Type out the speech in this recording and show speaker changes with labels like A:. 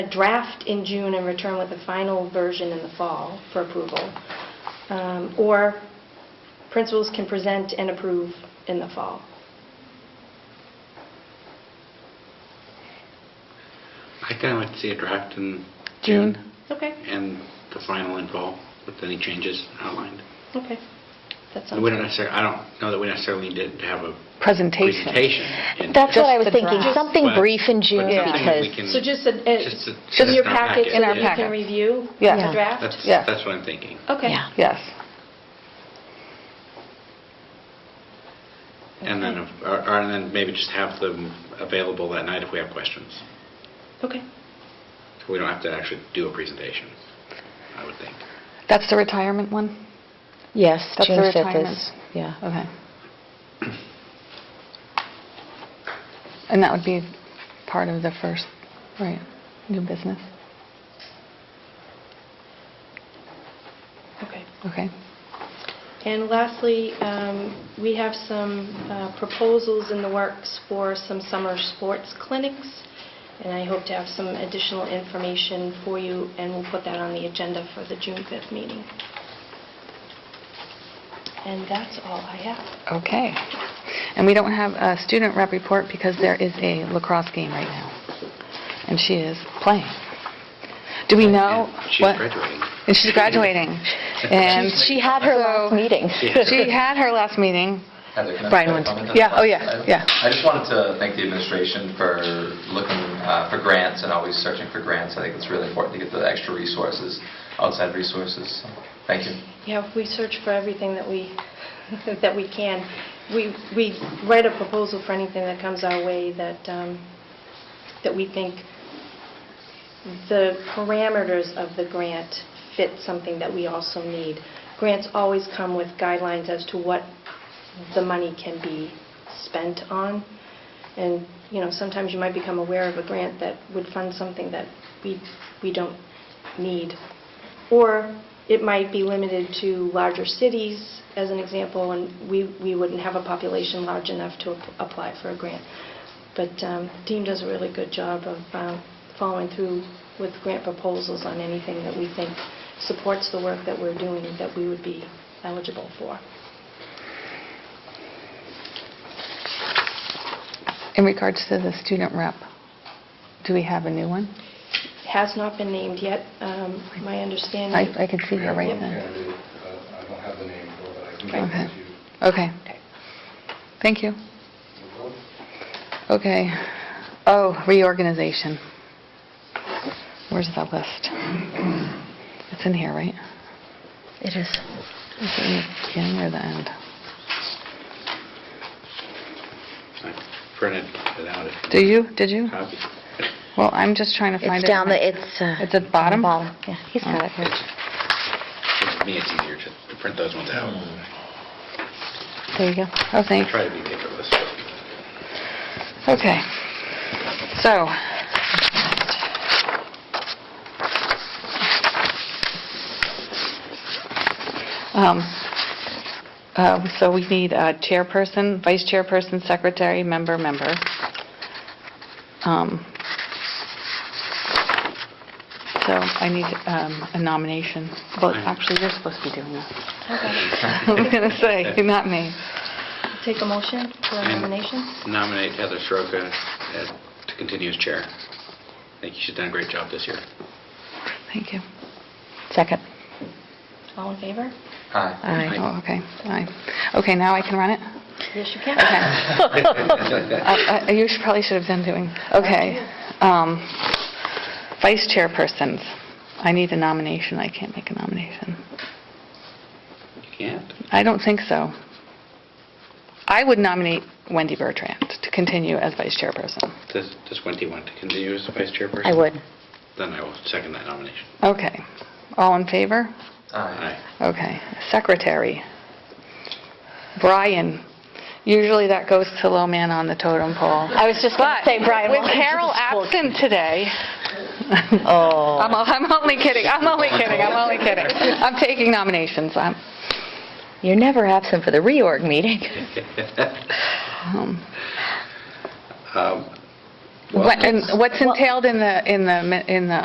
A: a draft in June and return with a final version in the fall for approval. Um, Or principals can present and approve in the fall.
B: I kind of like to see a draft in
C: June.
B: June
A: Okay,
B: and the final in fall with any changes outlined.
A: okay. That sounds
B: And we don't
A: good.
B: necessarily, I don't know that we necessarily need to have a
C: Presentation.
B: presentation. in-
D: That's
C: Just
D: what I was
C: the
D: thinking,
C: draft.
D: something
B: But-
D: brief in
B: but
D: June
B: something that we
D: because,
B: can-
A: So just a- a-
B: just a- just
A: in your
B: in our
A: packet, so
B: packet.
A: that
C: In
A: you
C: our
A: can
C: packet.
A: review
C: Yeah.
A: the draft?
B: That's,
C: Yeah.
B: that's what I'm thinking.
A: Okay.
D: Yeah.
C: Yes.
B: And then, if- or or- and then maybe just have them available that night if we have questions.
A: Okay.
B: We don't have to actually do a presentation, I would think.
C: That's the retirement one?
D: yes,
C: That's the
D: June 5th
C: retirement.
D: is, yeah.
C: Okay. And that would be part of the first, right, new business?
A: Okay.
C: Okay.
A: And lastly, um, we have some uh, proposals in the works for some summer sports clinics, and I hope to have some additional information for you, and we'll put that on the agenda for the June 5th meeting. And that's all I have.
C: Okay. And we don't have a student rep report because there is a lacrosse game right now. And she is playing. Do we know?
B: And she's
C: what-
B: graduating.
C: And she's graduating. And
D: She had her last
C: So-
D: meeting.
C: She had her last meeting.
E: Heather, can I
C: Brian
E: make a
C: wants-
E: comment on
C: yeah,
E: that?
C: oh, yeah, yeah.
E: I just wanted to thank the administration for looking uh, for grants and always searching for grants. I think it's really important to get the extra resources, outside resources. So, Thank you.
A: Yeah, we search for everything that we, that we can. We we write a proposal for anything that comes our way that, um, that we think the parameters of the grant fit something that we also need. Grants always come with guidelines as to what the money can be spent on. And, you know, sometimes you might become aware of a grant that would fund something that we, we don't need. Or it might be limited to larger cities, as an example, and we, we wouldn't have a population large enough to ap- apply for a grant. But um, Dean does a really good job of um, following through with grant proposals on anything that we think supports the work that we're doing that we would be eligible for.
C: In regards to the student rep, do we have a new one?
A: Has not been named yet, um, my understanding.
C: I I can see her right
F: Yeah,
C: then.
F: I I don't have the name for it, but I can
A: Right.
F: give it to you.
C: Okay.
A: Okay.
C: Thank you.
F: Okay.
C: Okay. Oh, reorganization. Where's that list? It's in here, right?
D: It is.
C: Is it in the beginning or the end?
B: I printed it out. if
C: Do you, did you?
B: Copy.
C: Well, I'm just trying to find it.
D: It's down, the. it's... uh,
C: It's at the bottom? Oh.
D: Bottom, yeah, he's got it.
B: It's- For me, it's easier to to print those ones out.
C: There you go. Oh,
B: I
C: thanks.
B: try to be paperless.
C: Okay. So. Um, um, So we need a chairperson, vice chairperson, secretary, member, member. Um, So I need um, a nomination. Well, actually, you're supposed to be doing this. I was going to say, not me.
A: Take a motion for a nomination?
B: Nominate Heather Soroka as- to continue as chair. I think she's done a great job this year.
C: Thank you.
D: Second.
A: All in favor?
E: Hi.
D: Aye.
C: Oh, okay, aye. Okay, now I can run it?
A: Yes, you can.
C: Okay. Uh, I- I- uh, You should- probably should have been doing, okay. Um, Vice chairpersons, I need a nomination, I can't make a nomination.
B: You can't?
C: I don't think so. I would nominate Wendy Bertrand to continue as vice chairperson.
B: Does does Wendy want to continue as vice chairperson?
D: I would.
B: Then I will second that nomination.
C: Okay, all in favor?
E: Hi.
B: Aye.
C: Okay, secretary. Brian, usually that goes to low man on the totem pole.
D: I was just going to say, Brian,
C: But
D: why
C: with
D: don't you
C: Carol
D: just vote?
C: absent today,
D: Oh,
C: I'm I'm only kidding, I'm only kidding, I'm only kidding. I'm taking nominations. I'm-
D: you're never absent for the reorg meeting.
B: Um,
C: What- And what's entailed in the, in the, mi- in the